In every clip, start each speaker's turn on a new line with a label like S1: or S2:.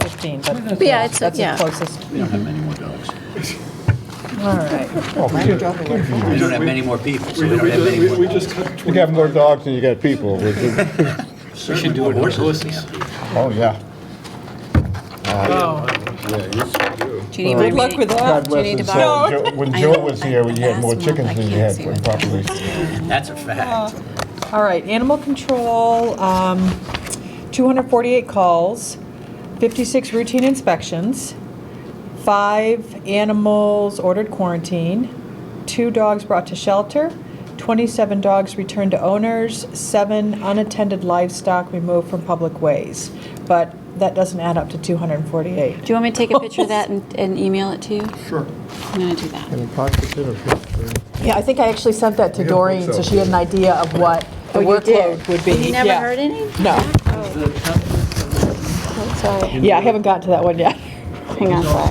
S1: 15, but
S2: Yeah, it's-
S1: that's the
S2: yeah.
S1: closest.
S3: We don't have many more dogs.
S1: All right.
S4: Oh,
S3: We don't have many more people, so
S5: We,
S3: we
S5: we
S3: don't have many
S5: just- we- we
S3: more.
S5: just cut
S4: You got
S5: 20,
S4: more dogs than you got people. which is-
S3: We should do it with horses.
S4: Oh, yeah.
S1: Oh,
S2: Do you need my
S1: Good luck with
S2: reading?
S1: that.
S4: God
S2: Do you need
S4: bless
S2: to
S4: us.
S2: borrow?
S4: So Jo- When
S2: I
S4: Joe
S2: know,
S4: was
S2: I-
S4: here, we had
S2: last
S4: more
S2: month, I
S4: chickens than you
S2: can't
S4: had
S2: see what-
S4: properly.
S3: That's a fact.
S1: All right, animal control, um, 248 calls, 56 routine inspections, five animals ordered quarantine, two dogs brought to shelter, 27 dogs returned to owners, seven unattended livestock removed from public ways. But that doesn't add up to 248.
S2: Do you want me to take a picture of that and, and email it to you?
S6: Sure.
S2: I'm gonna do that.
S1: Yeah, I think I actually sent that to
S6: Yeah, I think
S1: Doreen, so
S6: so.
S1: she had an idea of what
S2: Oh,
S1: the workload would be.
S2: You never
S1: Yeah.
S2: heard any?
S1: No.
S2: Sorry.
S1: Yeah, I haven't gotten to that one yet.
S2: Hang on, sorry.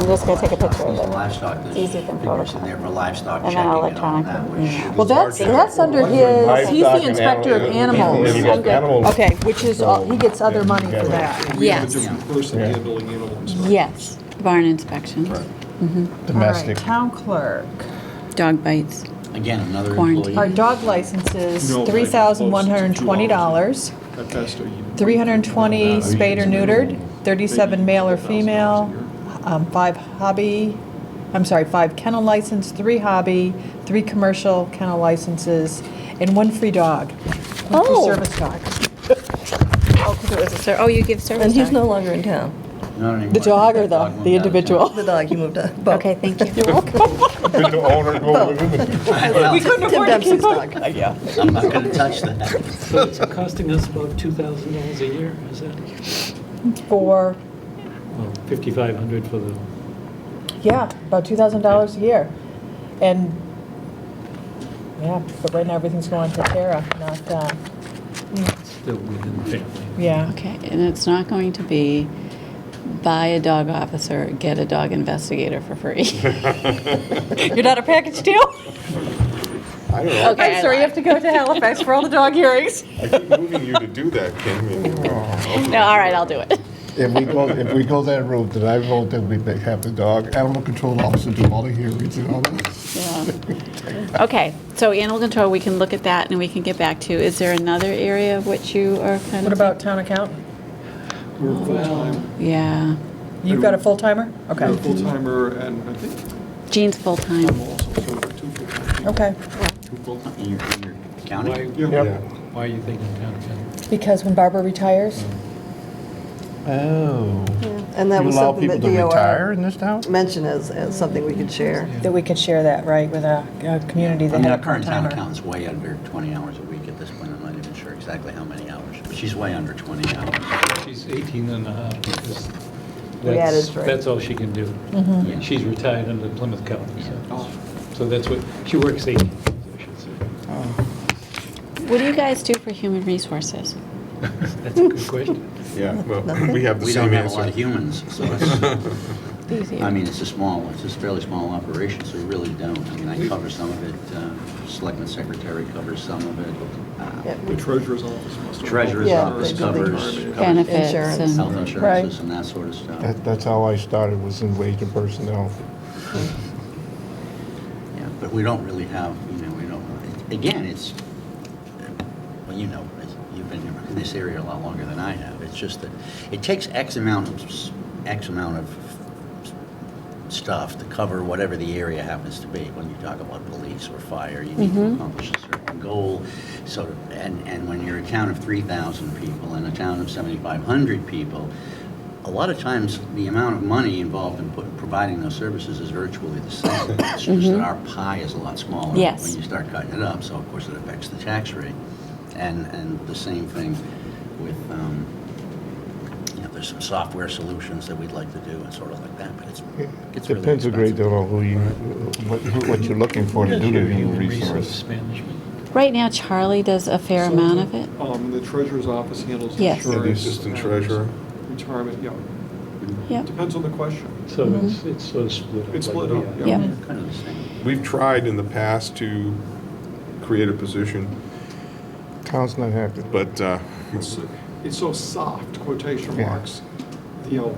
S2: I'm just gonna take a picture of it.
S3: Livestock, there's
S2: Easier than
S3: figures in
S2: Photoshop.
S3: there for livestock
S2: And
S3: checking
S2: then
S3: and all
S2: electronic,
S3: that,
S2: yeah.
S3: which.
S1: Well, that's, that's under his, he's the inspector of
S4: You
S1: animals.
S4: got animals.
S1: Okay, which is, all- he gets other money for that.
S5: we have a
S2: Yes.
S5: different person handling animal inspection.
S2: Yes, barn inspections,
S4: Domestic.
S1: All right, town clerk.
S2: dog bites.
S3: Again, another
S2: Quarantine.
S3: employee.
S1: Our dog licenses,
S5: No,
S1: three thousand one hundred twenty dollars,
S5: At best, are you-
S1: three hundred and twenty spayed or neutered, thirty-seven male or female, um, five hobby, I'm sorry, five kennel license, three hobby, three commercial kennel licenses, and one free dog. One free
S2: Oh.
S1: service dog.
S2: Oh, you give service
S7: And he's
S2: dog?
S7: no longer in town.
S3: Not anymore.
S1: The dog or the,
S3: Dog moved
S1: the
S3: out of town.
S1: individual?
S7: The dog, he moved on. Bo.
S2: Okay, thank you.
S4: Did the owner go with him?
S1: We couldn't
S7: Tim
S1: afford to
S7: Dempsey's
S1: keep up.
S7: dog.
S3: I'm not gonna touch that.
S8: So it's costing us about $2,000 a year, is that?
S1: For,
S8: Well, 5,500 for the,
S1: yeah, about $2,000 a year. And, yeah, but right now, everything's going to Tara, not, uh,
S8: still within the family.
S1: yeah.
S2: Okay, and it's not going to be buy a dog officer, get a dog investigator for free. You're not a package deal?
S9: I don't know.
S2: Okay, I
S1: I'm sorry, you have to go to Halifax for all the dog hearings.
S9: I keep moving you to do that, Kim. and-
S2: No, all right, I'll do it.
S4: If we go, if we go that route, then I vote that we have the dog, animal control officer do all the hearings and all that.
S2: Yeah. Okay, so animal control, we can look at that and we can get back to. you. Is there another area of which you are kind
S1: What
S2: of?
S1: about town accountant?
S5: We're full-time,
S2: Yeah,
S1: You've got a full-timer?
S5: we're a
S1: Okay,
S5: full-timer, and I think
S2: Gene's full-time.
S5: I'm also, so we're two full-time.
S1: okay.
S5: Two full-time.
S3: In your in your county?
S8: Why,
S5: Yeah.
S8: why are you thinking town council?
S1: Because when Barbara retires,
S4: Oh.
S7: And that
S4: You
S7: was
S4: allow
S7: something
S4: people
S7: that
S4: to
S7: DOR
S4: retire in this town?
S7: mentioned as, as something we could share.
S1: that we could share that, right, with a, a community
S3: I
S1: that
S3: mean,
S1: had
S3: our
S1: a
S3: current town
S1: full-timer.
S3: accountant's way under 20 hours a week at this point. I'm not even sure exactly how many hours. but She's way under 20 hours.
S8: She's 18 and a half, because
S7: We
S8: that's,
S7: added, right.
S8: that's all she can do.
S3: Yeah.
S8: She's retired under Plymouth County, so,
S5: Oh.
S8: so that's what, she works 18, I should say.
S2: What do you guys do for human resources?
S8: That's a good question.
S9: Yeah, well, we have the
S3: We don't
S9: same
S3: have a lot of
S9: answer.
S3: humans, so it's,
S2: It's easy.
S3: I mean, it's a small, it's a fairly small operation, so we really don't. I mean, I cover some of it, uh, Selectman Secretary covers some of it, uh,
S7: Yeah.
S5: The treasurer's office must. have-
S3: Treasurer's
S7: Yeah,
S3: office
S7: they- they-
S3: covers covers
S2: Benefits
S7: Insurance.
S2: and,
S3: health
S1: Right.
S3: insurances and that sort of stuff.
S4: That, that's how I started, was in wage and personnel.
S3: Yeah, But we don't really have, you know, we don't, again, it's, well, you know, it's- you've been in this area a lot longer than I have. It's just that it takes X amount of, s- X amount of stuff to cover whatever the area happens to be. When you talk about police or fire, you need to accomplish a certain goal. So, and, and when you're a town of 3,000 people and a town of 7,500 people, a lot of times, the amount of money involved in put- providing those services is virtually the same. It's just that our pie is a lot smaller.
S2: Yes.
S3: When you start cutting it up, so of course it affects the tax rate. And, and the same thing with, um, you know, there's some software solutions that we'd like to do and sort of like that, but it's, it's really
S4: Depends a great
S3: expensive.
S4: deal on who you, what, who- what you're looking for to do the human resource.
S8: Resource management.
S2: right now Charlie does a fair
S5: So
S2: amount
S5: the-
S2: of it.
S5: Um, the treasurer's office handles
S2: Yes.
S5: insurance.
S2: Yeah,
S9: the assistant
S5: and
S9: treasurer.
S5: Retirement, yeah.
S2: Yep.
S5: Depends on the question.
S8: So it's, it's sort of split up.
S5: It's
S8: like
S5: split
S8: we
S5: up,
S8: are.
S5: yeah.
S2: Yeah.
S3: Kind of the same.
S9: We've tried in the past to create a position,
S4: Town's not happy.
S9: but uh,
S5: It's it's so soft, quotation
S4: Yeah.
S5: marks. you know,